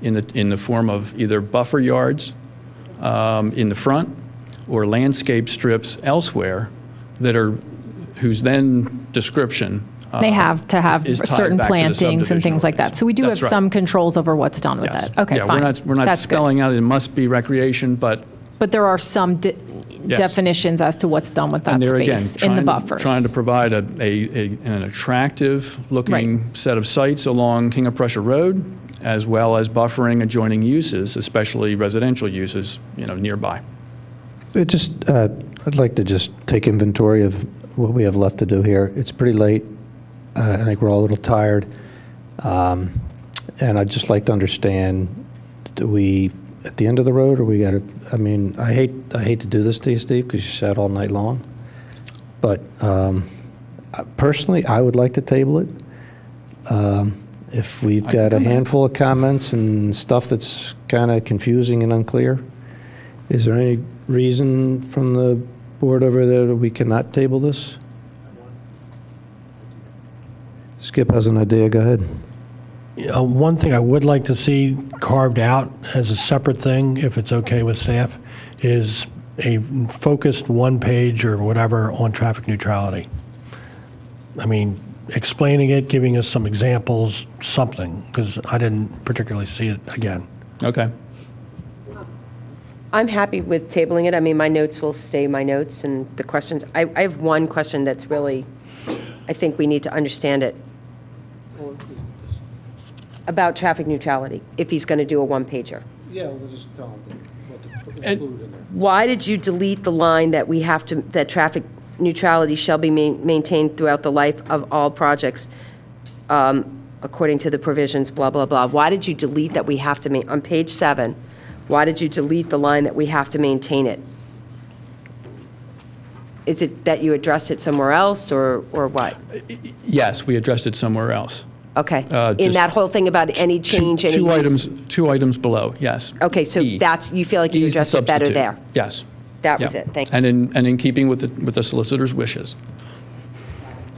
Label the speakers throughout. Speaker 1: in the, in the form of either buffer yards um, in the front or landscape strips elsewhere that are, whose then description. uh,
Speaker 2: They have to have
Speaker 1: is tied
Speaker 2: certain
Speaker 1: back to the
Speaker 2: plantings and things like
Speaker 1: subdivision
Speaker 2: that. So we do have
Speaker 1: ordinance. That's right.
Speaker 2: some controls over what's done with
Speaker 1: yes.
Speaker 2: that. Okay,
Speaker 1: Yeah,
Speaker 2: fine.
Speaker 1: we're not, we're not
Speaker 2: That's good.
Speaker 1: spelling out it must be recreation, but
Speaker 2: But there are some de-
Speaker 1: Yes.
Speaker 2: definitions as to what's done with that
Speaker 1: And there again,
Speaker 2: space in the
Speaker 1: trying-
Speaker 2: buffers.
Speaker 1: Trying to provide a, a, a- an attractive-looking set of sites along King of Prussia Road, as well as buffering adjoining uses, especially residential uses, you know, nearby.
Speaker 3: It just, uh, I'd like to just take inventory of what we have left to do here. It's pretty late. Uh, I think we're all a little tired. Um, And I'd just like to understand, do we, at the end of the road, or we got to, I mean, I hate, I hate to do this to you, Steve, because you sat all night long. But um, I- personally, I would like to table it. Um, If we've
Speaker 1: can
Speaker 3: got a
Speaker 1: come back.
Speaker 3: handful of comments and stuff that's kind of confusing and unclear, is there any reason from the board over there that we cannot table this? Skip has an idea, go ahead.
Speaker 4: Uh, One thing I would like to see carved out as a separate thing, if it's okay with staff, is a focused one page or whatever on traffic neutrality. I mean, explaining it, giving us some examples, something, because I didn't particularly see it again.
Speaker 1: Okay.
Speaker 5: I'm happy with tabling it. I mean, my notes will stay my notes and the questions. I, I have one question that's really, I think we need to understand it. About traffic neutrality, if he's going to do a one-pager.
Speaker 6: Yeah, we'll just tell them what to
Speaker 1: And-
Speaker 6: include in there.
Speaker 5: Why did you delete the line that we have to, that traffic neutrality shall be ma- maintained throughout the life of all projects um, according to the provisions, blah, blah, blah? Why did you delete that we have to ma, on page seven, why did you delete the line that we have to maintain it? Is it that you addressed it somewhere else, or, or what?
Speaker 1: Yes, we addressed it somewhere else.
Speaker 5: Okay.
Speaker 1: Uh,
Speaker 5: In
Speaker 1: just
Speaker 5: that whole thing about any
Speaker 1: Two-
Speaker 5: change, any
Speaker 1: Two
Speaker 5: use?
Speaker 1: items, two items below, yes.
Speaker 5: Okay, so
Speaker 1: E.
Speaker 5: that's, you feel like
Speaker 1: E
Speaker 5: you
Speaker 1: is the
Speaker 5: addressed it better
Speaker 1: substitute.
Speaker 5: there?
Speaker 1: Yes.
Speaker 5: That was
Speaker 1: Yeah.
Speaker 5: it, thank you.
Speaker 1: And in, and in keeping with, the- with the solicitor's wishes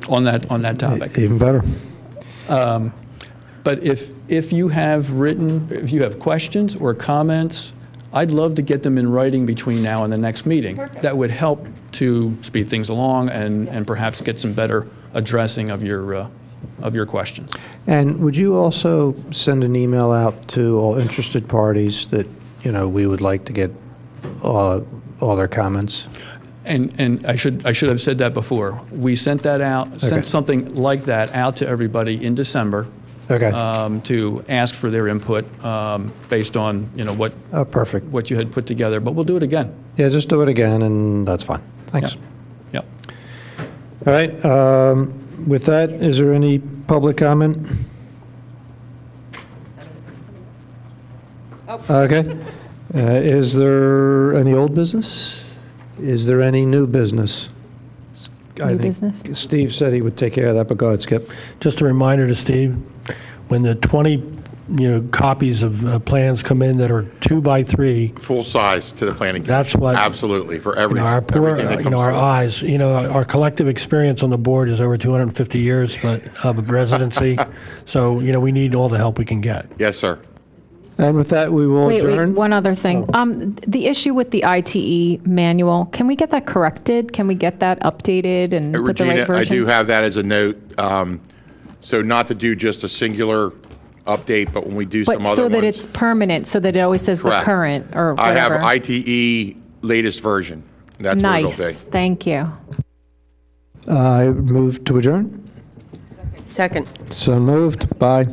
Speaker 1: on that, on that topic.
Speaker 3: Even better.
Speaker 1: But if, if you have written, if you have questions or comments, I'd love to get them in writing between now and the next meeting. That would help to speed things along and, and perhaps get some better addressing of your, uh, of your questions.
Speaker 3: And would you also send an email out to all interested parties that, you know, we would like to get uh, all their comments?
Speaker 1: And, and I should, I should have said that before. We sent that out, sent
Speaker 3: Okay.
Speaker 1: something like that out to everybody in December
Speaker 3: Okay,
Speaker 1: um, to ask for their input um, based on, you know, what,
Speaker 3: Oh, perfect.
Speaker 1: what you had put together, but we'll do it again.
Speaker 3: Yeah, just do it again, and that's fine. Thanks.
Speaker 1: Yep.
Speaker 3: All right, um, with that, is there any public comment? Okay. Uh, Is there any old business? Is there any new business? I
Speaker 2: New
Speaker 3: think
Speaker 2: business?
Speaker 3: Steve said he would take care of that, but go ahead, Skip.
Speaker 4: Just a reminder to Steve, when the 20, you know, copies of uh, plans come in that are two by three,
Speaker 7: full size to the planning.
Speaker 4: That's
Speaker 7: commission.
Speaker 4: what-
Speaker 7: Absolutely, for
Speaker 4: You
Speaker 7: every,
Speaker 4: know, our poor, uh,
Speaker 7: everything that
Speaker 4: you
Speaker 7: comes
Speaker 4: know, our
Speaker 7: through.
Speaker 4: eyes, you know, our collective experience on the board is over 250 years, but of residency. So, you know, we need all the help we can get.
Speaker 7: Yes, sir.
Speaker 3: And with that, we will
Speaker 2: Wait, wait,
Speaker 3: adjourn.
Speaker 2: one other thing.
Speaker 1: Oh.
Speaker 2: Um, The issue with the ITE manual, can we get that corrected? Can we get that updated and put the right
Speaker 7: Regina,
Speaker 2: version?
Speaker 7: I do have that as a note. um, So not to do just a singular update, but when we do some
Speaker 2: But
Speaker 7: other ones.
Speaker 2: so that it's permanent, so that it always says the
Speaker 7: Correct.
Speaker 2: current or
Speaker 7: I
Speaker 2: whatever.
Speaker 7: have ITE latest version. That's what it'll be.
Speaker 2: Nice, thank you.
Speaker 3: I move to adjourn.
Speaker 5: Second.
Speaker 3: So moved. Bye.